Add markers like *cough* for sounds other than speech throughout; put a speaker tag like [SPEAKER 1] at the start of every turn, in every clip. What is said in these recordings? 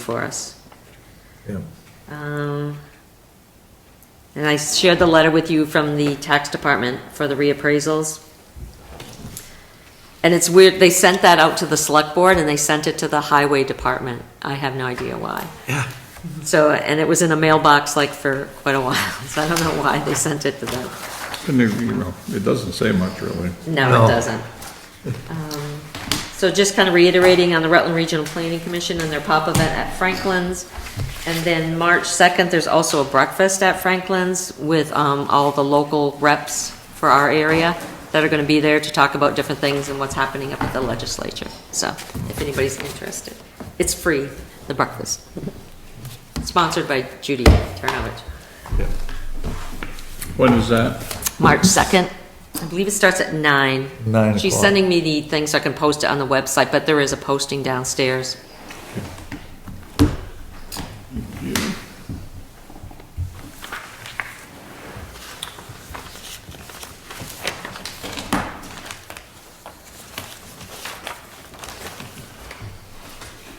[SPEAKER 1] for us.
[SPEAKER 2] Yeah.
[SPEAKER 1] Um, And I shared the letter with you from the tax department for the reappraisals. And it's weird, they sent that out to the select board and they sent it to the highway department. I have no idea why.
[SPEAKER 2] Yeah.
[SPEAKER 1] So, and it was in a mailbox like for quite a while, *laughs* so I don't know why they sent it to them.
[SPEAKER 3] And, it, you know, it doesn't say much, really.
[SPEAKER 1] No,
[SPEAKER 2] No.
[SPEAKER 1] it doesn't. Um, So just kind of reiterating on the Rutland Regional Planning Commission and their pop event at Franklin's. And then March 2nd, there's also a breakfast at Franklin's with um, all the local reps for our area that are going to be there to talk about different things and what's happening up at the legislature. So if anybody's interested, it's free, the breakfast. Sponsored by Judy Turnovich.
[SPEAKER 3] When is that?
[SPEAKER 1] March 2nd. I believe it starts at 9.
[SPEAKER 2] Nine
[SPEAKER 1] She's
[SPEAKER 2] o'clock.
[SPEAKER 1] sending me the things so I can post it on the website, but there is a posting downstairs.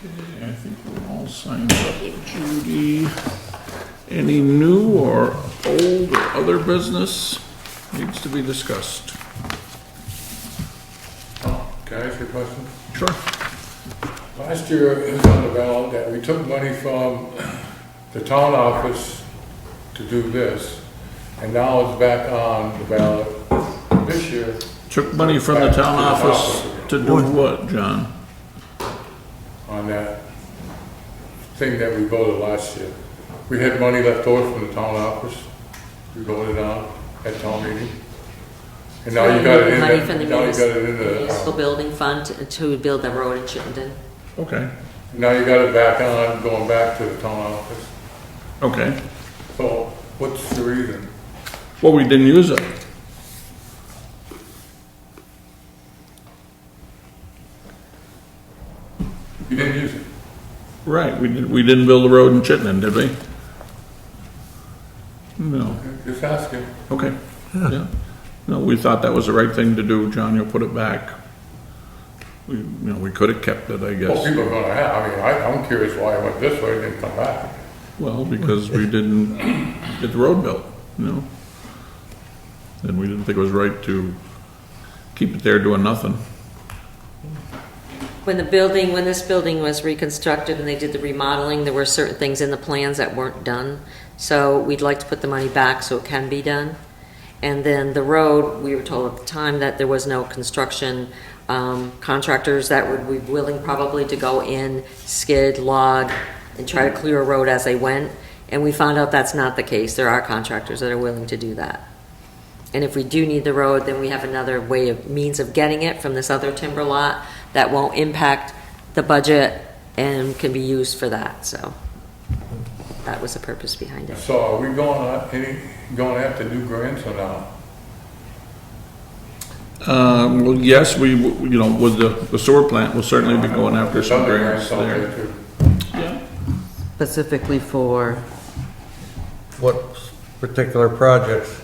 [SPEAKER 3] Okay, I think we're all signed up. Judy, any new or old or other business needs to be discussed?
[SPEAKER 4] Can I ask you a question?
[SPEAKER 3] Sure.
[SPEAKER 4] Last year, it was on the ballot that we took money from the town office to do this, and now it's back on the ballot this year.
[SPEAKER 3] Took money from the town office to do what, John?
[SPEAKER 4] on that thing that we voted last year. We had money left over from the town office, we voted on at town meeting. And now you got it in
[SPEAKER 1] Money from the
[SPEAKER 4] the, now you got it in
[SPEAKER 1] municipal
[SPEAKER 4] the, uh,
[SPEAKER 1] building fund to- to build the road in Chittenden.
[SPEAKER 3] Okay,
[SPEAKER 4] now you got it back on, going back to the town office.
[SPEAKER 3] okay.
[SPEAKER 4] So what's the reason?
[SPEAKER 3] Well, we didn't use it.
[SPEAKER 4] You didn't use it.
[SPEAKER 3] Right, we didn't, we didn't build a road in Chittenden, did we? No,
[SPEAKER 4] Just asking.
[SPEAKER 3] okay, yeah. No, we thought that was the right thing to do, John, you'll put it back. We, you know, we could have kept it, I
[SPEAKER 4] Well,
[SPEAKER 3] guess.
[SPEAKER 4] Oh, people are gonna have, I mean, I, I'm curious why I went this way and didn't come back.
[SPEAKER 3] Well, because we didn't get the road built, you know? And we didn't think it was right to keep it there doing nothing.
[SPEAKER 1] When the building, when this building was reconstructed and they did the remodeling, there were certain things in the plans that weren't done. So we'd like to put the money back so it can be done. And then the road, we were told at the time that there was no construction um, contractors that would be willing probably to go in, skid, log, and try to clear a road as they went. And we found out that's not the case. There are contractors that are willing to do that. And if we do need the road, then we have another way of, means of getting it from this other timber lot that won't impact the budget and can be used for that, so. That was the purpose behind it.
[SPEAKER 4] So are we going, on any, going after new grants or not?
[SPEAKER 3] Um, well, yes, we, w- you know, with the, the sewer plant, we'll certainly be going after some
[SPEAKER 4] Other
[SPEAKER 3] grants
[SPEAKER 4] out
[SPEAKER 3] there.
[SPEAKER 4] too.
[SPEAKER 3] Yeah.
[SPEAKER 5] specifically for,
[SPEAKER 2] What particular projects?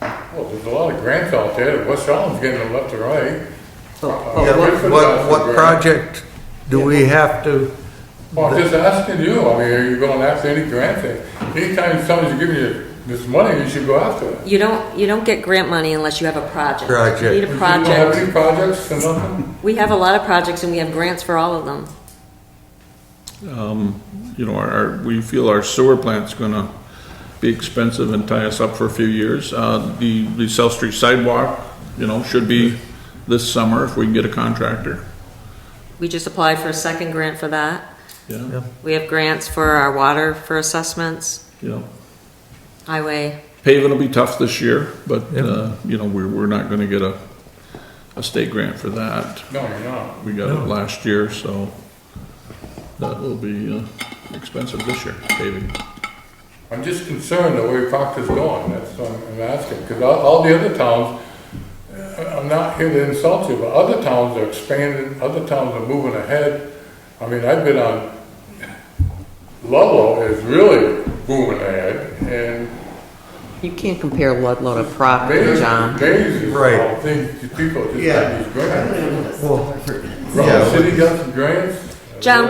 [SPEAKER 4] Well, there's a lot of grants out there, West Allen's getting them left to right.
[SPEAKER 5] but-
[SPEAKER 4] Oh,
[SPEAKER 2] Yeah,
[SPEAKER 4] wait
[SPEAKER 2] What,
[SPEAKER 4] for that
[SPEAKER 2] what-
[SPEAKER 4] for
[SPEAKER 2] what
[SPEAKER 4] grant.
[SPEAKER 2] project do we have to,
[SPEAKER 4] Well, I'm just asking you, I mean, are you going after any grant thing? Anytime somebody's giving you this money, you should go after it.
[SPEAKER 1] You don't, you don't get grant money unless you have a project.
[SPEAKER 2] Project.
[SPEAKER 1] You need
[SPEAKER 4] You
[SPEAKER 1] a
[SPEAKER 4] don't have
[SPEAKER 1] project.
[SPEAKER 4] any projects or nothing?
[SPEAKER 1] We have a lot of projects and we have grants for all of them.
[SPEAKER 3] you know, our- our, we feel our sewer plant's gonna be expensive and tie us up for a few years. Uh, the, the South Street sidewalk, you know, should be this summer if we can get a contractor,
[SPEAKER 1] We just applied for a second grant for that.
[SPEAKER 3] yeah,
[SPEAKER 1] We have grants for our water for assessments,
[SPEAKER 3] you know.
[SPEAKER 1] highway.
[SPEAKER 3] Paving will be tough this year, but,
[SPEAKER 2] Yeah.
[SPEAKER 3] uh, you know, we're, we're not gonna get a, a state grant for that.
[SPEAKER 4] No, you're not.
[SPEAKER 3] We got it last year, so that will be, uh, expensive this year, paving.
[SPEAKER 4] I'm just concerned the way Proctor's going, that's what I'm asking, because all, all the other towns, uh, I'm not here to insult you, but other towns are expanding, other towns are moving ahead. I mean, I've been on, Ludlow is really moving ahead, and
[SPEAKER 5] you can't compare Ludlow to Proctor,
[SPEAKER 4] Amazing,
[SPEAKER 5] John.
[SPEAKER 4] amazing
[SPEAKER 2] Right.
[SPEAKER 4] how things, people just
[SPEAKER 2] Yeah.
[SPEAKER 4] got these grants.
[SPEAKER 2] well,
[SPEAKER 4] Rutland City got some grants.
[SPEAKER 1] John,